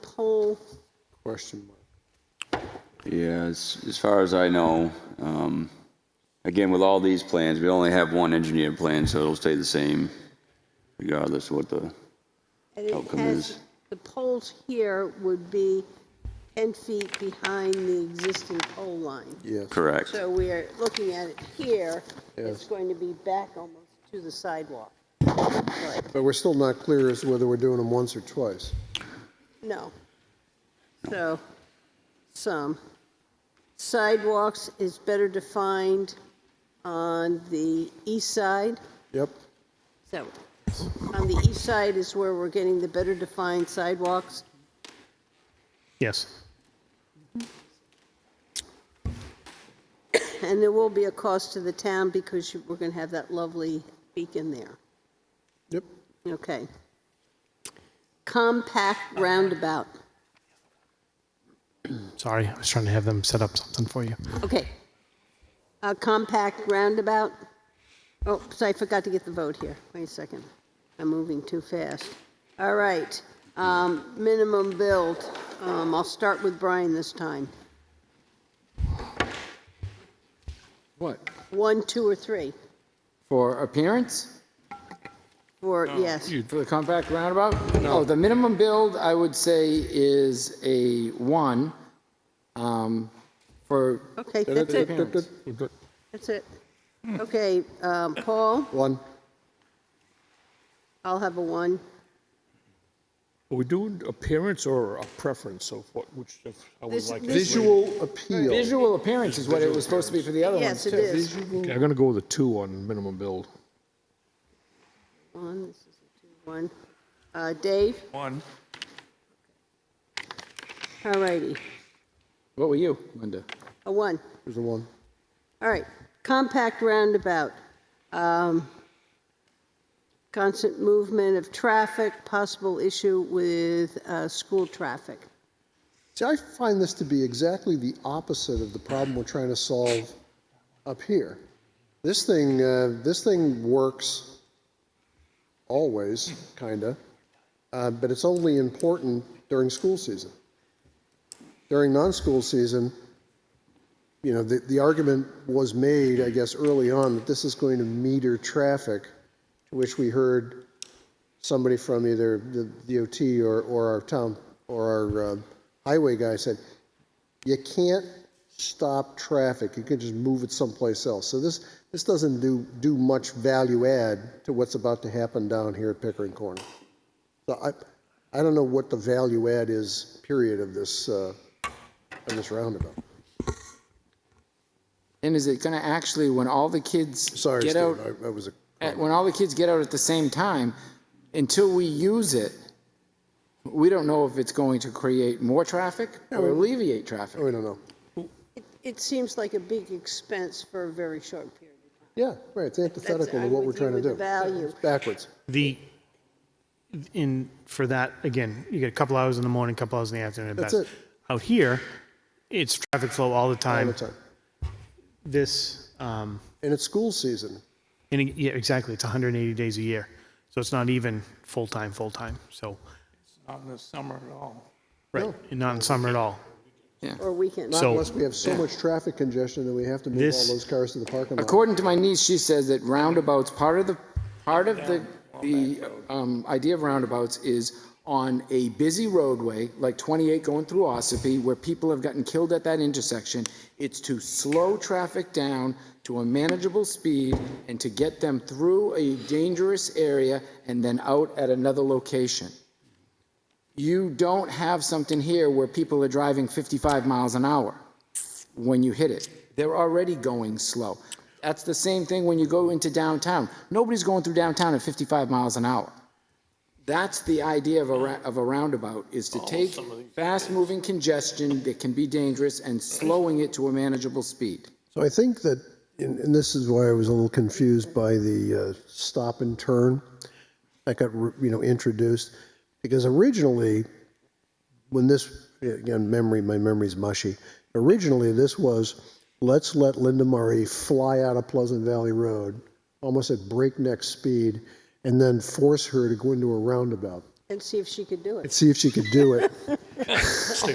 whole, Question mark. Yeah, as, as far as I know, um, again, with all these plans, we only have one engineered plan, so it'll stay the same regardless of what the, and it Outcome has, is- the poles here would be 10 feet behind the existing pole line. Yes. correct. So we are looking at it here, it's Yes. going to be back almost to the sidewalk. Right. But we're still not clear as to whether we're doing them once or twice. No. So, some. Sidewalks is better defined on the east side. Yep, So, on the east side is where we're getting the better defined sidewalks. Yes. And there will be a cost to the town because you- we're going to have that lovely beacon there. yep. Okay. Compact roundabout. Sorry, I was trying to have them set up something for you. Okay. A compact roundabout. Oh, so I forgot to get the vote here. Wait a second. I'm moving too fast. All right. Um, minimum build. Um, I'll start with Brian this time. What? One, two, or three? For appearance? Or, yes. For the compact roundabout? No, the minimum build, I would say, is a one. um, For, Okay, that's it. That's it. Okay, um, Paul, One, I'll have a one. Are we doing appearance or a preference of what, which, of uh, how we This- like this- it? visual appeal. visual appearance is what it was supposed to be for the other ones, Yes, too. it is. Okay, I'm gonna go with a two on minimum build. One, this is a two, one. Uh, Dave? One. All righty, What were you, Linda? a one. There's a one. All right, compact roundabout. Um, Constant movement of traffic, possible issue with uh, school traffic. See, I find this to be exactly the opposite of the problem we're trying to solve up here. This thing, uh, this thing works always, kinda, uh, but it's only important during school season. During non-school season, you know, the, the argument was made, I guess, early on that this is going to meter traffic, to which we heard somebody from either the DOT or, or our town, or our um, highway guy said, you can't stop traffic, you can just move it someplace else. So this, this doesn't do, do much value add to what's about to happen down here at Pickering Corner. So I, I don't know what the value add is, period, of this, uh, of this roundabout. And is it going to actually, when all the kids Sorry, get Steve, out, I I was a Uh, at- when all the kids get out at the same time, until we use it, we don't know if it's going to create more traffic or alleviate traffic. Oh, I don't know. It- It seems like a big expense for a very short period. Yeah, right, it's antithetical to I'm what we're with you trying to with do. the value. It's Backwards. The, in, for that, again, you get a couple hours in the morning, a couple hours in the afternoon at That's best. it. Out here, it's traffic flow all the All the time. time. This, um, And it's school season. and it- yeah, exactly, it's 180 days a year. So it's not even full-time, full-time, so, Not in the summer at all. right, and not in summer at all. Or weekend. So- Unless we have so much traffic congestion that we have to move all This- those cars to the parking lot. According to my niece, she says that roundabouts, part of the, part of the, the um, idea of roundabouts is on a busy roadway, like 28 going through Ossipee, where people have gotten killed at that intersection, it's to slow traffic down to a manageable speed and to get them through a dangerous area and then out at another location. You don't have something here where people are driving 55 miles an hour when you hit it. They're already going slow. That's the same thing when you go into downtown. Nobody's going through downtown at 55 miles an hour. That's the idea of a, ra- of a roundabout, is to take fast-moving congestion that can be dangerous and slowing it to a manageable speed. So I think that, and, and this is why I was a little confused by the uh, stop and turn that got re- you know introduced, because originally, when this again memory my memory's mushy. Originally, this was let's let Linda Murray fly out of Pleasant Valley Road almost at breakneck speed, and then force her to go into a roundabout. and see if she could do it. and see if she could do it.